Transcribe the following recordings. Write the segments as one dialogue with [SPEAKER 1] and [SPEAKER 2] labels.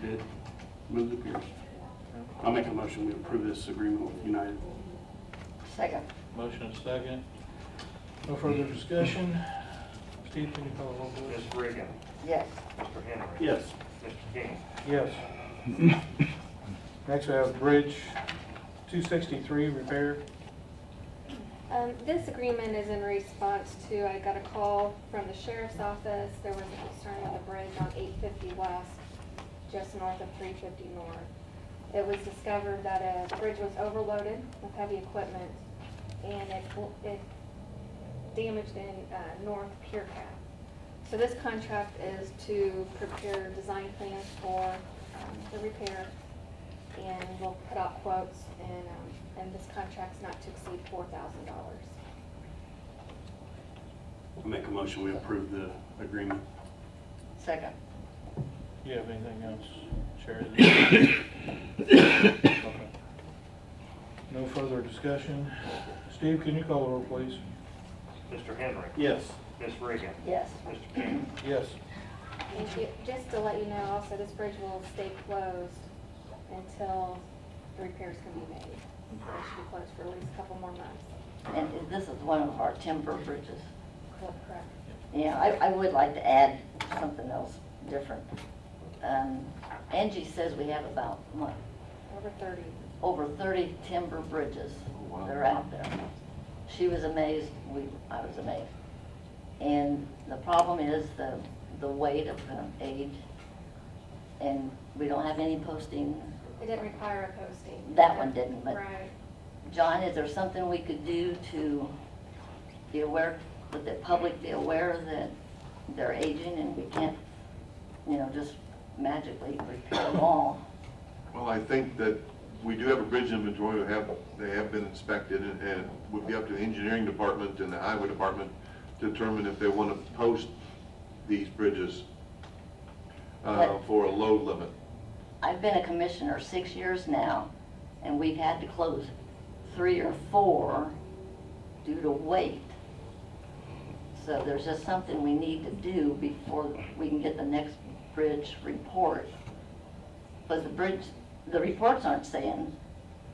[SPEAKER 1] bid. Move the Pierce. I'll make a motion, we approve this agreement with United.
[SPEAKER 2] Second.
[SPEAKER 3] Motion is second. No further discussion. Steve, can you call the roll,
[SPEAKER 4] Ms.
[SPEAKER 3] please?
[SPEAKER 4] Reagan,
[SPEAKER 2] Yes.
[SPEAKER 4] Mr. Henry.
[SPEAKER 1] Yes.
[SPEAKER 4] Mr. King,
[SPEAKER 3] Yes. Next, we have Bridge 263 repair.
[SPEAKER 5] Um, this agreement is in response to, I got a call from the sheriff's office, there was a concern with a bridge on eight fifty west, just north of three fifty north. It was discovered that a bridge was overloaded with heavy equipment, and it, it damaged in, uh, north pier cap. So this contract is to prepare design plans for, um, the repair, and we'll put out quotes, and, um, and this contract's not to exceed four thousand dollars.
[SPEAKER 1] I'll make a motion, we approve the agreement.
[SPEAKER 2] Second.
[SPEAKER 3] Do you have anything else, Sherry? Okay. No further discussion. Steve, can you call the roll, please?
[SPEAKER 4] Mr. Henry.
[SPEAKER 1] Yes.
[SPEAKER 4] Ms. Reagan,
[SPEAKER 2] Yes.
[SPEAKER 4] Mr. King,
[SPEAKER 3] Yes.
[SPEAKER 5] And ju- just to let you know, also, this bridge will stay closed until the repairs can be made. It should be closed for at least a couple more months.
[SPEAKER 2] And this is one of our timber bridges.
[SPEAKER 5] Correct.
[SPEAKER 2] Yeah, I, I would like to add something else different. Um, Angie says we have about, what,
[SPEAKER 5] Over thirty.
[SPEAKER 2] over thirty timber bridges that are out there. She was amazed, we, I was amazed. And the problem is the, the weight of the age, and we don't have any posting.
[SPEAKER 5] It didn't require a posting.
[SPEAKER 2] That one didn't, but-
[SPEAKER 5] Right.
[SPEAKER 2] John, is there something we could do to be aware, that the public be aware that they're aging and we can't, you know, just magically repair them all?
[SPEAKER 6] Well, I think that we do have a bridge inventory, they have, they have been inspected, and and it would be up to the engineering department and the highway department to determine if they want to post these bridges uh,
[SPEAKER 2] But-
[SPEAKER 6] for a load limit.
[SPEAKER 2] I've been a commissioner six years now, and we've had to close three or four due to weight. So there's just something we need to do before we can get the next bridge report. But the bridge, the reports aren't saying,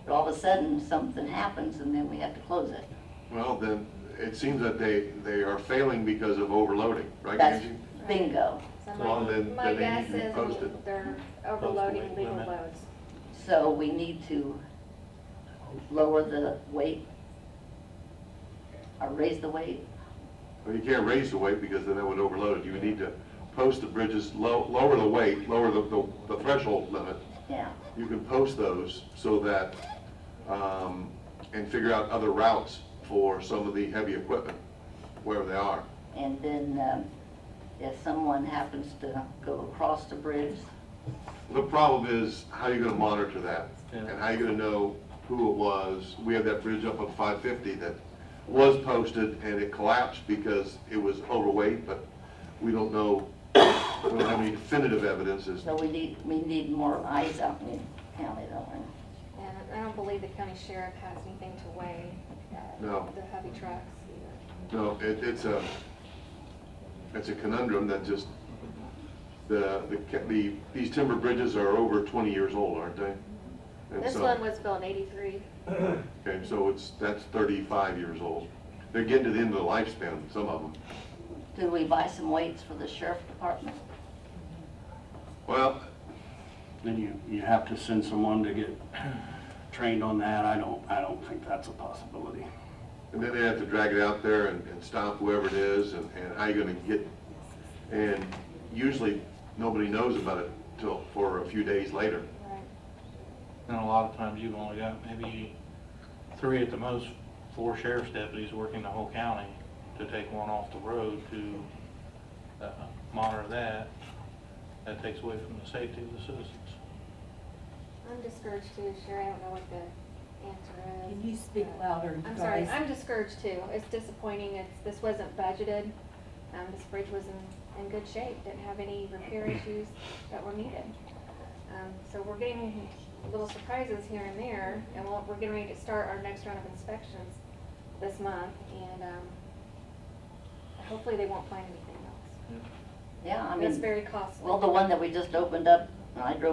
[SPEAKER 2] but all of a sudden, something happens and then we have to close it.
[SPEAKER 6] Well, then, it seems that they, they are failing because of overloading, right,
[SPEAKER 2] That's
[SPEAKER 6] Angie?
[SPEAKER 2] bingo.
[SPEAKER 5] So
[SPEAKER 6] Well,
[SPEAKER 5] my-
[SPEAKER 6] then-
[SPEAKER 5] my
[SPEAKER 6] then
[SPEAKER 5] guess
[SPEAKER 6] they need to be
[SPEAKER 5] is
[SPEAKER 6] posted.
[SPEAKER 5] they're
[SPEAKER 3] Posted,
[SPEAKER 5] overloading
[SPEAKER 3] wait a
[SPEAKER 5] legal
[SPEAKER 3] minute.
[SPEAKER 5] loads.
[SPEAKER 2] So we need to lower the weight or raise the weight.
[SPEAKER 6] Well, you can't raise the weight because then that would overload it. You would need to post the bridges, low, lower the weight, lower the, the- the threshold limit,
[SPEAKER 2] Yeah,
[SPEAKER 6] you can post those so that, um, and figure out other routes for some of the heavy equipment, wherever they are.
[SPEAKER 2] and then um, if someone happens to go across the bridge,
[SPEAKER 6] The problem is, how you gonna monitor that?
[SPEAKER 3] Yeah.
[SPEAKER 6] And how you gonna know who it was? We have that bridge up on five fifty that was posted and it collapsed because it was overweight, but we don't know, we don't have any definitive evidence as
[SPEAKER 2] so we need, we need more eyes out in the county, don't we?
[SPEAKER 5] And I don't believe the county sheriff has anything to weigh, uh,
[SPEAKER 6] No.
[SPEAKER 5] the heavy trucks either.
[SPEAKER 6] No, it, it's a, it's a conundrum that just, the, the, ca- the, these timber bridges are over twenty years old, aren't they? And
[SPEAKER 5] This
[SPEAKER 6] so-
[SPEAKER 5] one was built in eighty-three.
[SPEAKER 6] Okay, so it's, that's thirty-five years old. They're getting to the end of the lifespan, some of them.
[SPEAKER 2] Do we buy some weights for the sheriff department?
[SPEAKER 6] Well,
[SPEAKER 1] Then you, you have to send someone to get trained on that. I don't, I don't think that's a possibility.
[SPEAKER 6] and then they have to drag it out there and, and stop whoever it is, and, and how you gonna get, and usually, nobody knows about it till, for a few days later.
[SPEAKER 5] Right.
[SPEAKER 3] And a lot of times you've only got maybe three at the most, four sheriff's deputies working the whole county to take one off the road to uh, monitor that. That takes away from the safety of the citizens.
[SPEAKER 5] I'm discouraged too, Sherry, I don't know what the answer is.
[SPEAKER 7] Can you speak
[SPEAKER 5] Uh,
[SPEAKER 7] louder,
[SPEAKER 5] I'm sorry,
[SPEAKER 7] guys?
[SPEAKER 5] I'm discouraged too. It's disappointing, it's, this wasn't budgeted. Um, this bridge was in, in good shape, didn't have any repair issues that were needed. Um, so we're getting little surprises here and there, and we'll, we're getting ready to start our next round of inspections this month, and, um, hopefully they won't find anything else.
[SPEAKER 2] Yeah, I
[SPEAKER 5] That's
[SPEAKER 2] mean,
[SPEAKER 5] very costly.
[SPEAKER 2] well, the one that we just opened up, and I drove